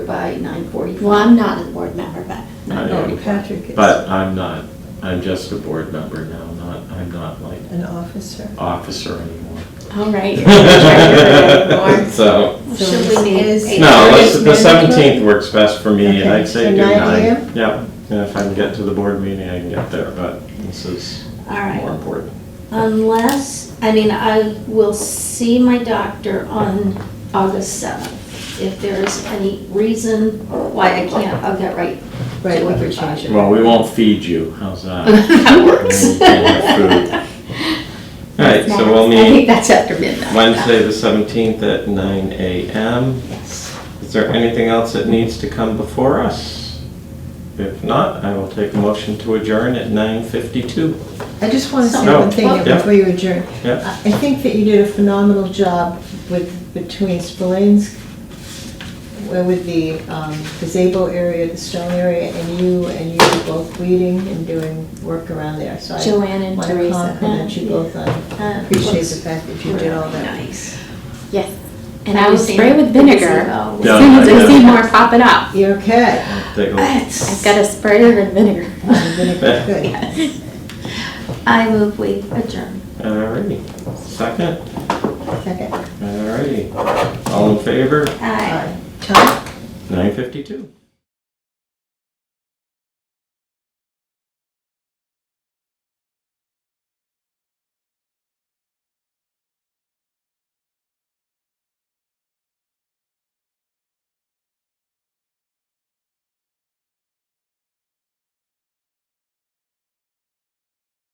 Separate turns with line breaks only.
by nine forty-five.
Well, I'm not a board member, but
I
Okay.
am,
Patrick is
but I'm not, I'm just a board member now, not, I'm not like
an officer.
officer anymore.
all right.
So,
Well,
So
Should
this
we
is-
meet?
no, let's-
Eight
the
thirty?
seventeenth works best for me, and
Okay,
I'd say
so
do
9
nine.
a.m.?
Yeah, and if I can get to the board meeting, I can get there, but this is
All
more
right,
important.
unless, I mean, I will see my doctor on August 7th. If there is any reason why I can't, I'll get right.
Right, we could change it.
Well, we won't feed you, how's that?
That
We won't feed you food. All right, so we'll
I
meet
think that's after midnight.
Wednesday, the 17th at 9 a.m. Is there anything else that needs to come before us? If not, I will take a motion to adjourn at 9:52.
I just want to say
No.
one thing
Yeah.
before you adjourn.
Yeah,
I I think that you did a phenomenal job with, between Spillane's, well, with the um, disabled area, the stone area, and you, and you were both leading and doing work around there, so I
Joanne and
want to
Teresa.
compliment you both on,
Uh,
appreciate the
looks
fact that you did all
really
that.
Nice.
Yes,
Have
and I
you
will
seen
spray with
the
vinegar.
gazebo?
As
Yeah,
soon as
I
I see
know.
more popping up,
You're okay.
I'll take a-
It's-
I've got a sprayer and vinegar.
You're gonna be good.
I move we adjourn.
All righty, second,
Second.
all righty. All in favor?
Aye.
Aye. Tom?
9:52.